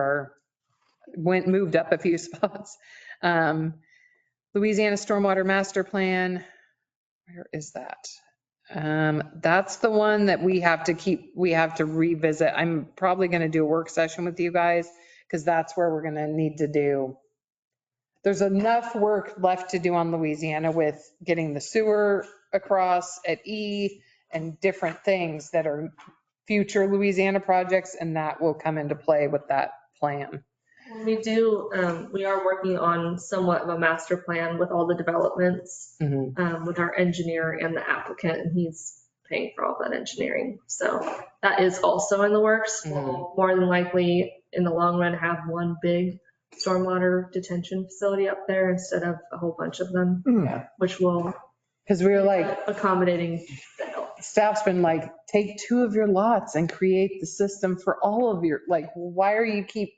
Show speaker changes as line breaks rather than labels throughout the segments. or went, moved up a few spots. Um, Louisiana Stormwater Master Plan, where is that? Um, That's the one that we have to keep, we have to revisit. I'm probably going to do a work session with you guys because that's where we're going to need to do. There's enough work left to do on Louisiana with getting the sewer across at E and different things that are future Louisiana projects, and that will come into play with that plan.
We do, um, we are working on somewhat of a master plan with all the developments,
Mhm.
um, with our engineer and the applicant, and he's paying for all that engineering. So that is also in the works.
Mm-hmm.
We'll More than likely, in the long run, have one big stormwater detention facility up there instead of a whole bunch of them,
Yeah.
which will
Because we were like,
accommodating the help.
staff's been like, take two of your lots and create the system for all of your, like, why are you keep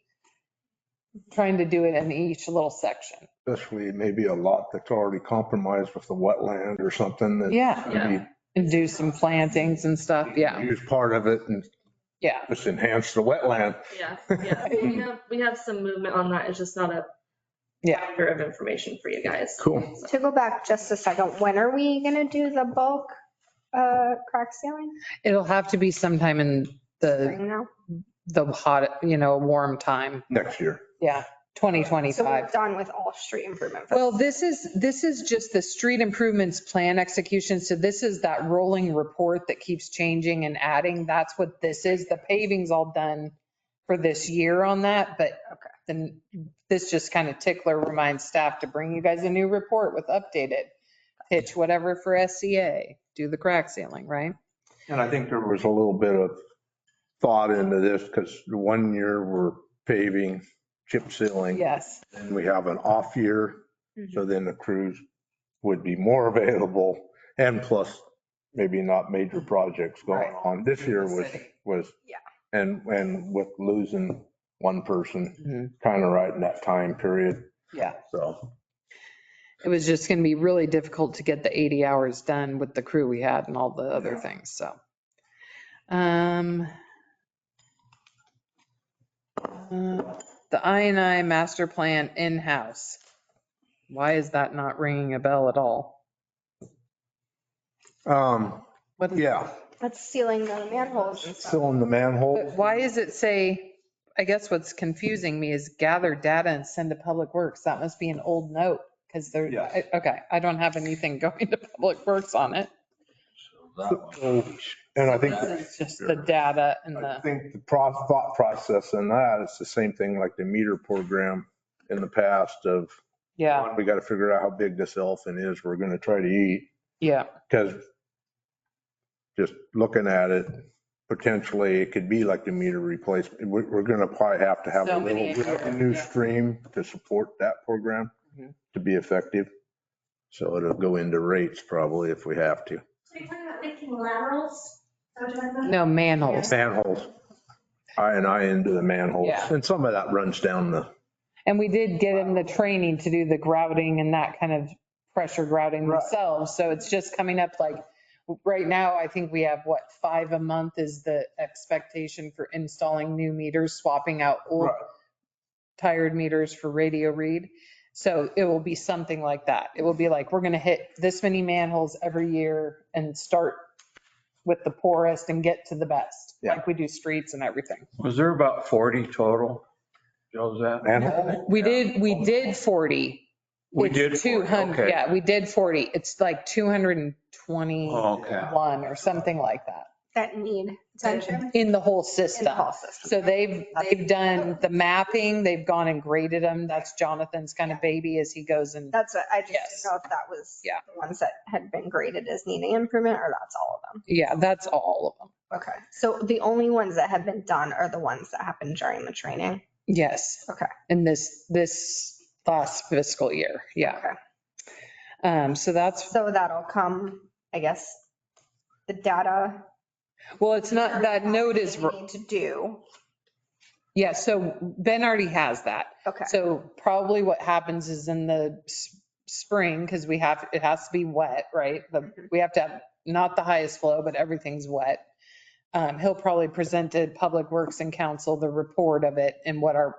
trying to do it in each little section?
especially maybe a lot that's already compromised with the wetland or something that
Yeah,
maybe
and do some plantings and stuff. Yeah,
use part of it and
yeah.
just enhance the wetland.
Yeah, yeah. We have, we have some movement on that. It's just not a
Yeah.
factor of information for you guys.
Cool.
So-
To go back just a second, when are we gonna do the bulk uh, crack sealing?
It'll have to be sometime in the,
Spring now?
the hot, you know, warm time.
Next year.
Yeah,
So
2025.
we're done with all street improvement. for-
Well, this is, this is just the street improvements plan execution. So this is that rolling report that keeps changing and adding. That's what this is. The paving's all done for this year on that, but then this just kind of tickler reminds staff to bring you guys a new report with updated pitch, whatever for SCA, do the crack sealing, right?
And I think there was a little bit of thought into this because one year we're paving, chip sealing,
Yes.
and we have an off year. So then the crews would be more available and plus maybe not major projects going
Right.
on. This year was,
City.
was.
Yeah.
And, and with losing one person,
Mhm.
kind of right in that time period.
Yeah.
So
It was just going to be really difficult to get the 80 hours done with the crew we had and all the other things, so. Um, uh, The INI master plan in-house. Why is that not ringing a bell at all?
um,
What is-
yeah,
That's sealing the manholes and stuff.
filling the
But
manhole.
Why is it say, I guess what's confusing me is gather data and send to Public Works. That must be an old note because there,
Yes.
I- okay, I don't have anything going to Public Works on it.
And I think,
It's just the data and
I
the,
think the pro- thought process in that is the same thing like the meter program in the past of,
yeah,
we got to figure out how big this elephant is we're going to try to eat.
yeah.
Because just looking at it, potentially it could be like the meter replacement. We- We're going to probably have to have a
So many
little revenue stream to support that program
Mhm.
to be effective. So it'll go into rates probably if we have to.
So you're talking about making laterals? Is that what you're talking about?
No, manholes.
Oh, Manholes. I and I into the manholes.
Yeah.
And some of that runs down the,
And we did get them the training to do the grouting and that kind of pressure grouting
Right.
themselves. So it's just coming up like, right now, I think we have what, five a month is the expectation for installing new meters, swapping out old
Right.
tired meters for radio read. So it will be something like that. It will be like, we're going to hit this many manholes every year and start with the poorest and get to the best,
Yeah.
like we do streets and everything.
Was there about 40 total? Josette?
manhole.
We did, we did 40.
We
It's
did 40,
200,
okay.
yeah, we did 40. It's like 221
Okay.
or something like that
That need attention.
in the whole
in the
system.
whole system.
So they've, they've done the mapping, they've gone and graded them. That's Jonathan's kind of baby as he goes and,
That's what, I just
Yes.
didn't know if that was
Yeah.
the ones that had been graded as needing improvement or that's all of them.
yeah, that's all of them.
Okay. So the only ones that have been done are the ones that happened during the training.
Yes.
Okay.
In this, this last fiscal year, yeah.
Okay.
Um, so that's
So that'll come, I guess, the data.
Well, it's not, that note is,
We need To do.
yeah, so Ben already has that.
Okay.
So probably what happens is in the s- spring, because we have, it has to be wet, right? The- We have to have, not the highest flow, but everything's wet. um, he'll probably present to Public Works and Council the report of it and what our